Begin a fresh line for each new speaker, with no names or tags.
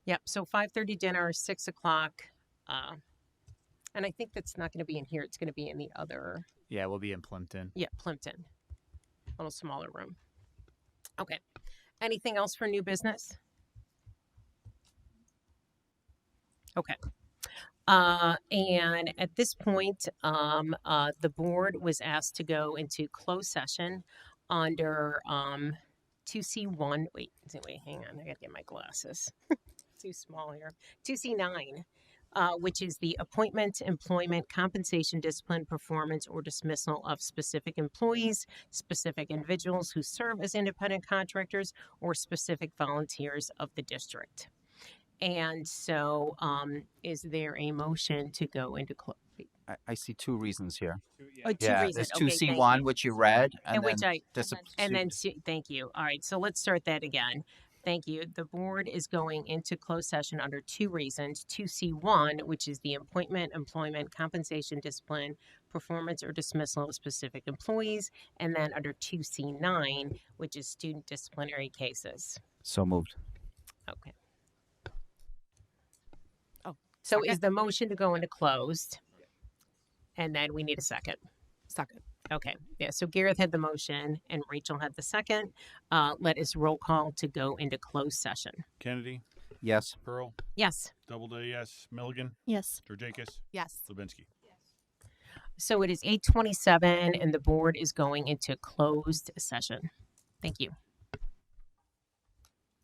Yep, so five thirty dinner, six o'clock. Uh, and I think that's not gonna be in here, it's gonna be in the other,
Yeah, we'll be in Plimpton.
yeah, Plimpton. Little smaller room. Okay, anything else for new business? Okay. Uh, and at this point, um, uh, the board was asked to go into closed session under, um, two C one, wait, wait, hang on, I gotta get my glasses. Too small here. Two C nine, uh, which is the appointment, employment, compensation, discipline, performance, or dismissal of specific employees, specific individuals who serve as independent contractors, or specific volunteers of the district. And so, um, is there a motion to go into close?
I, I see two reasons here.
Oh, two
yeah,
reasons.
there's two
Okay,
C
thank
one,
you.
which you read,
And
and
which
then
I,
dis-
And then, su- thank you. All right, so let's start that again. Thank you. The board is going into closed session under two reasons. Two C one, which is the appointment, employment, compensation, discipline, performance, or dismissal of specific employees. And then under two C nine, which is student disciplinary cases.
so moved.
Okay.
Oh,
So is the motion to go into closed? And then we need a second.
Second.
Okay, yeah, so Gareth had the motion and Rachel had the second. Uh, let us roll call to go into closed session.
Kennedy,
Yes.
Pearl,
Yes,
Doubleday, yes, Milligan,
Yes.
Georgakis,
Yes.
Lubinsky.
so it is eight twenty-seven and the board is going into closed session. Thank you.